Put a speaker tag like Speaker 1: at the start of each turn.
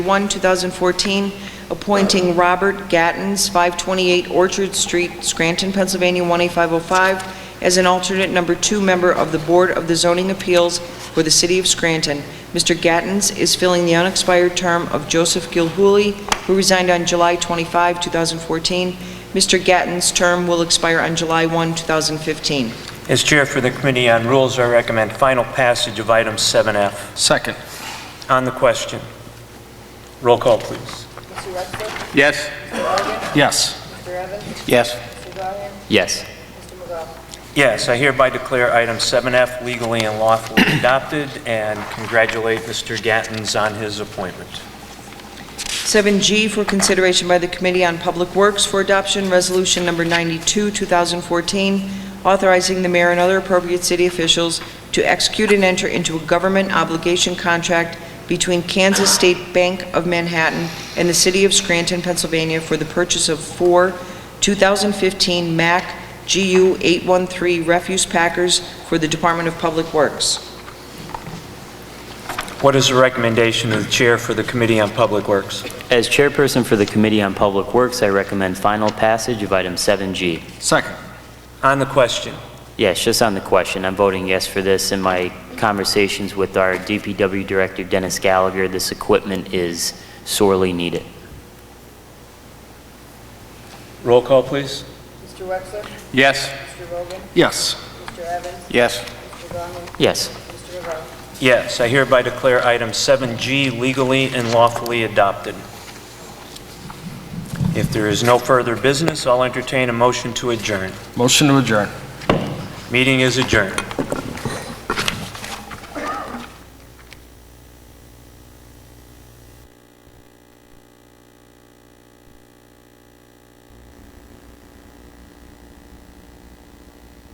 Speaker 1: 1, 2014, appointing Robert Gattens, 528 Orchard Street, Scranton, Pennsylvania, 18505, as an alternate number two member of the Board of the Zoning Appeals for the City of Scranton. Mr. Gattens is filling the unexpired term of Joseph Gilhooly, who resigned on July 25, 2014. Mr. Gattens' term will expire on July 1, 2015.
Speaker 2: As Chair for the Committee on Rules, I recommend final passage of item 7F.
Speaker 3: Second.
Speaker 2: On the question, roll call, please.
Speaker 3: Yes. Yes. Yes.
Speaker 4: Yes.
Speaker 2: Yes, I hereby declare item 7F legally and lawfully adopted, and congratulate Mr. Gattens on his appointment.
Speaker 1: 7G for consideration by the Committee on Public Works for adoption, Resolution Number 92, 2014, authorizing the mayor and other appropriate city officials to execute and enter into a government obligation contract between Kansas State Bank of Manhattan and the City of Scranton, Pennsylvania, for the purchase of four 2015 Mack GU 813 refuse packers for the Department of Public Works.
Speaker 2: What is the recommendation of the Chair for the Committee on Public Works?
Speaker 4: As chairperson for the Committee on Public Works, I recommend final passage of item 7G.
Speaker 3: Second.
Speaker 2: On the question,
Speaker 4: Yes, just on the question, I'm voting yes for this. In my conversations with our DPW Director, Dennis Gallagher, this equipment is sorely needed.
Speaker 2: roll call, please.
Speaker 5: Mr. Wexler?
Speaker 3: Yes.
Speaker 5: Mr. Rogan?
Speaker 3: Yes.
Speaker 5: Mr. Evans?
Speaker 3: Yes.
Speaker 5: Mr. Gahan?
Speaker 4: Yes.
Speaker 5: Mr. Rivera?
Speaker 2: Yes, I hereby declare item 7G legally and lawfully adopted. If there is no further business, I'll entertain a motion to adjourn.
Speaker 3: Motion to adjourn.
Speaker 2: Meeting is adjourned.